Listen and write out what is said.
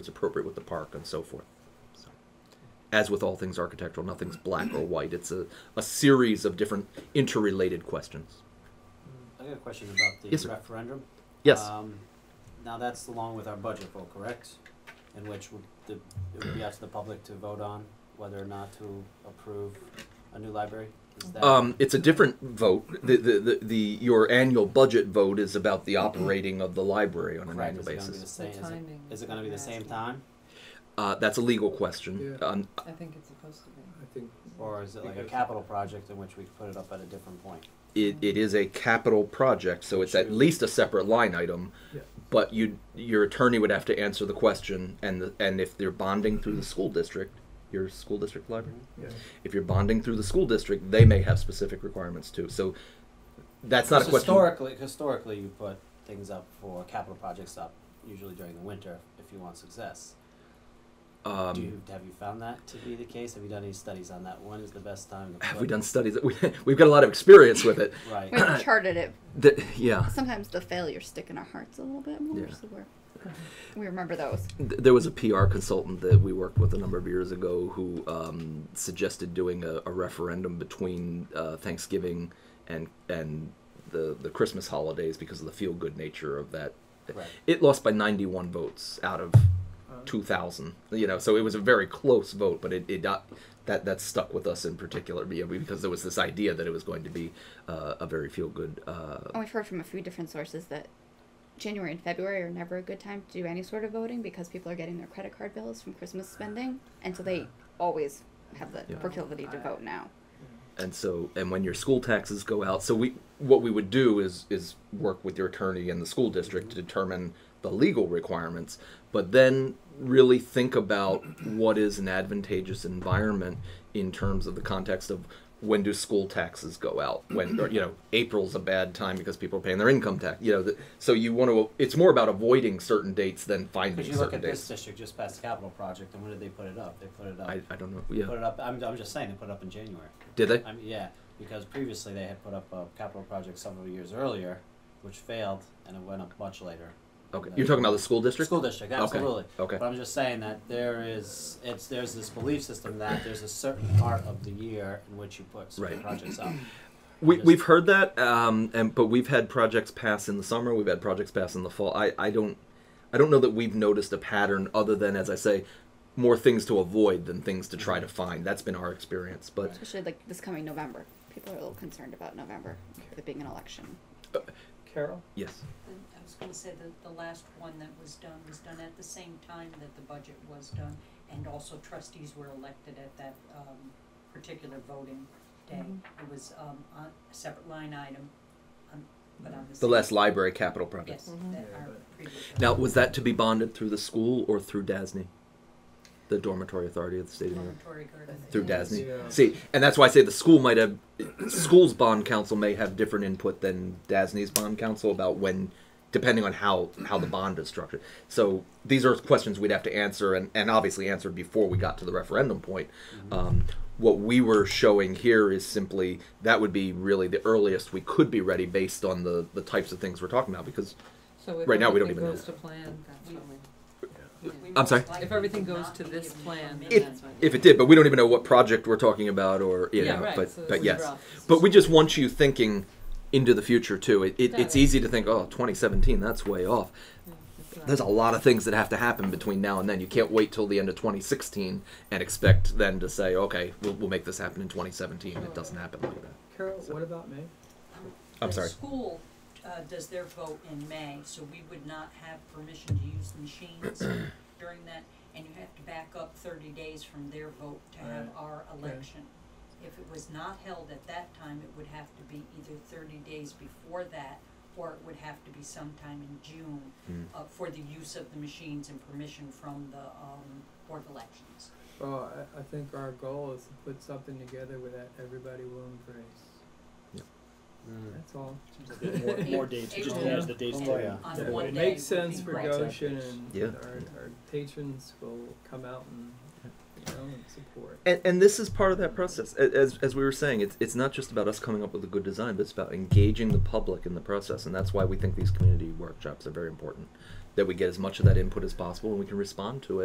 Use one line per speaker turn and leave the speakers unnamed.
is appropriate with the park and so forth. So, as with all things architectural, nothing's black or white. It's a, a series of different interrelated questions.
I got a question about the
Yes, sir.
referendum.
Yes.
Um, now that's along with our budget vote, correct? In which would the, it would be up to the public to vote on whether or not to approve a new library? Is that
Um, it's a different vote. The, the, the, the your annual budget vote is about the operating of the library on an
Mm-hmm. correct?
annual
Is it
basis.
gonna be the same?
The
Is it-
timing
Is
is
it gonna be the
what I'm
same
asking.
time,
Uh, that's a legal question.
Yeah.
Um,
I think it's supposed to be.
I think.
or is it like a
Because-
capital project in which we put it up at a different point?
it, it is a capital project, so it's at least a separate line item.
Yeah.
But you your attorney would have to answer the question, and the, and if they're bonding through the school district, your school district library.
Yeah.
If you're bonding through the school district, they may have specific requirements too. So that's not a question.
Historically, historically, you put things up for capital projects up usually during the winter if you want success.
Um,
Do you, have you found that to be the case? Have you done any studies on that? When is the best time to?
have
put-
we done studies? We, we've got a lot of experience with it.
Right.
We've charted it.
The- yeah.
Sometimes the failures stick in our hearts a little bit more,
Yeah.
so we're, we remember those.
Th- there was a PR consultant that we worked with a number of years ago who um, suggested doing a, a referendum between uh, Thanksgiving and and the the Christmas holidays because of the feel good nature of that.
Right.
It lost by 91 votes out of
Uh,
2,000. You know, so it was a very close vote, but it, it got, that that stuck with us in particular be- because there was this idea that it was going to be uh, a very feel good. Uh,
And we've heard from a few different sources that January and February are never a good time to do any sort of voting because people are getting their credit card bills from Christmas spending, and so they always have the
Yeah.
proclivity to vote now.
and so and when your school taxes go out so we what we would do is is work with your attorney and the school district to determine the legal requirements but then really think about what is an advantageous environment in terms of the context of when do school taxes go out when or, you know april's a bad time because people are paying their income tax you know the, so you want to it's more about avoiding certain dates than finding
Because you look
certain
at
dates
this district just past the capital project, and when did they put it up? They put it up.
I, I don't know
Put
yeah
it up. I'm, I'm just saying they put it up in January.
did they
I mean, yeah, because previously they had put up a capital project several years earlier, which failed, and it went up much later.
okay you're talking about the school district
School district,
Okay,
absolutely.
okay.
But I'm just saying that there is, it's, there's this belief system that there's a certain part of the year in which you put certain
Right.
projects up.
We,
Just-
we've heard that, um, and but we've had projects pass in the summer. We've had projects pass in the fall. I, I don't, I don't know that we've noticed a pattern other than, as I say, more things to avoid than things to try to find. That's been our experience. But
Especially like this coming November, people are a little concerned about November, with it being an election.
Carol?
yes,
And I was gonna say that the last one that was done was done at the same time that the budget was done, and also trustees were elected at that, um, particular voting day. It was, um, on a separate line item, on, but on the
the
same-
last library capital project.
Yes,
Mm-hmm.
that our previous.
Now, was that to be bonded through the school or through DASNY, the dormitory authority of the state of New York?
Dormitory garden.
Through
Yeah.
DASNY.
Yeah.
See, and that's why I say the school might have, school's bond council may have different input than DASNY's bond council about when, depending on how how the bond is structured. So these are questions we'd have to answer, and and obviously answer before we got to the referendum point.
Mm-hmm.
Um, what we were showing here is simply that would be really the earliest we could be ready based on the the types of things we're talking about because
So if
Right now, we don't
everything
even
goes
know.
to plan, that's when we.
We
Yeah.
I'm sorry?
most likely
If everything
would
goes
not
to
be
this
given
plan,
permission.
then that's when.
if it did, but we don't even know what project we're talking about or you
Yeah,
know,
right,
but
so
but
it's
yes.
rough.
But we just want you thinking into the future too. It, it, it's
Yeah.
easy to think, oh, 2017, that's way off.
Yeah, it's not-
There's a lot of things that have to happen between now and then. You can't wait till the end of 2016 and expect then to say, okay, we'll, we'll make this happen in 2017. It doesn't happen like that.
Carol, what about May?
Um,
I'm
the
sorry.
school uh, does their vote in May, so we would not have permission to use the machines during that, and you have to back up thirty days from their vote to have
Right.
our election. If it was not held at that time, it would have to be either thirty days before that, or it would have to be sometime in June
Mm.
uh, for the use of the machines and permission from the um, Board of Elections.
Well, Oh, I, I think our goal is to put something together with that everybody will embrace.
Hmm. Oh,
That's all.
More, more dates, Mm. just to add the dates to it.
On
If
one
it
day
makes
would be
sense for
great.
Goshen and
Yeah.
our, our patrons will come out and, you know, and support.
And, and this is part of that process. A- As, as we were saying, it's, it's not just about us coming up with a good design, but it's about engaging the public in the process. And that's why we think these community workshops are very important that we get as much of that input as possible and we can respond to it.